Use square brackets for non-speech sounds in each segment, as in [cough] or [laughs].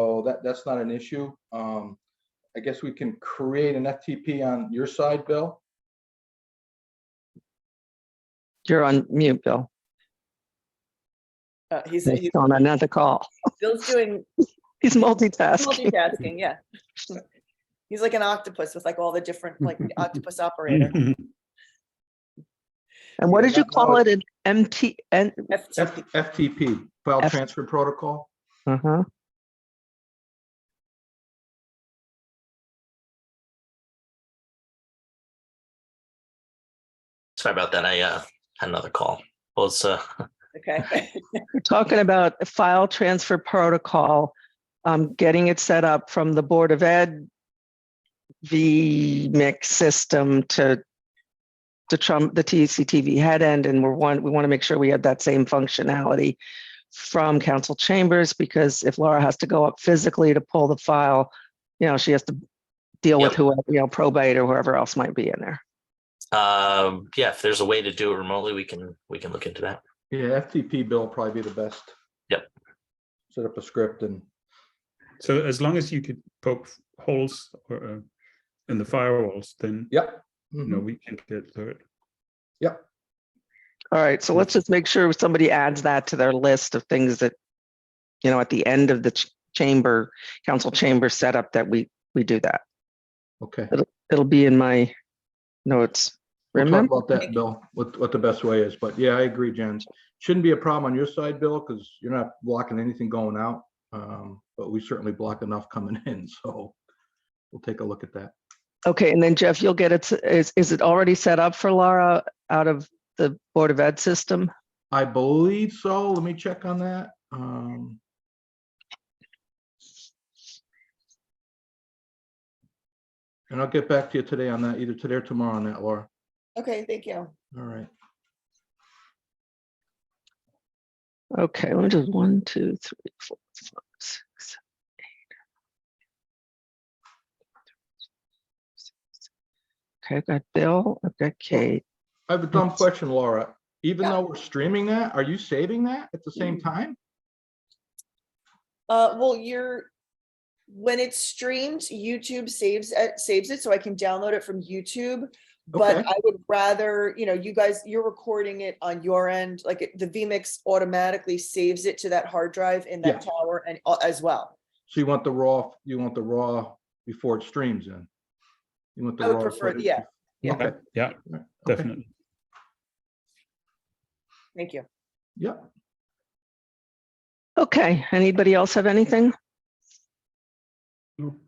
so that, that's not an issue. Um, I guess we can create an FTP on your side, Bill. You're on mute, Bill. Uh, he's, He's he's on another call. Bill's doing He's multitasking. multitasking, yeah. [laughs] He's like an octopus with like all the different, like the octopus operator. And what Yeah, did you that call knowledge- it? An MT, and, FT. F- FTP, File F- Transfer Protocol. uh-huh. Sorry about that. I uh, had another call. Well, it's uh, Okay. We're talking about a file transfer protocol, um, getting it set up from the Board of Ed vMix system to to Trump, the TCTV head end, and we're one, we want to make sure we have that same functionality from council chambers, because if Laura has to go up physically to pull the file, you know, she has to deal with Yep. whoever, you know, probate or whoever else might be in there. um, yeah, if there's a way to do it remotely, we can we can look into that. Yeah, FTP, Bill, probably be the best. Yep. Set up a script and, So as long as you could poke f- holes or uh, in the firewalls, then yep. Mm-hmm. you know we can get through it. All right, so let's just make sure somebody adds that to their list of things that, you know, at the end of the ch- chamber, council chamber setup that we, we do that. Okay. It'll be in my notes. We'll talk Remember, about that, Bill, what, what the best way is, but yeah, I agree, Jen. Shouldn't be a problem on your side, Bill, because you're not blocking anything going out. Um, but we certainly block enough coming [laughs] in, so we'll take a look at that. okay, and then Jeff, you'll get it, is, is it already set up for Laura out of the Board of Ed system? I believe so. Let me check on that. Um. And I'll get back to you today on that, either today or tomorrow on that, Laura. Okay, thank you. All right. Okay, let me just, one, two, three, four, five, six, seven, eight. nine, ten, eleven, twelve, thirteen, fourteen, fifteen, sixteen, seventeen. Okay, I've got Bill, I've got Kate. I have a dumb Yes. question, Laura. Even Yeah. Mm. though we're streaming that, are you saving that at the same time? Uh, well, you're, when it's streamed, YouTube saves, it saves it, so I can download it from YouTube. But Okay. I would rather, you know, you guys, you're recording it on your end, like it- the vMix automatically saves it to that hard drive in that tower and uh, as well. So you want the raw, you want the raw before it streams in? You want the I raw? would prefer, footage? yeah, Yeah. Okay, Yeah, okay. definitely. thank you. Yep. Okay, anybody else have anything? No.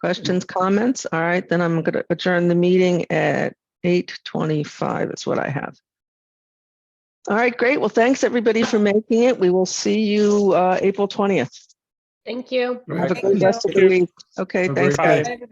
Questions, comments? All right, then I'm gonna adjourn the meeting at eight twenty-five is what I have. All right, great. Well, thanks, everybody, for making it. We will see you uh April twentieth. Thank you. Have a Right. good rest of the week. Okay, Have a thanks, great guys. day.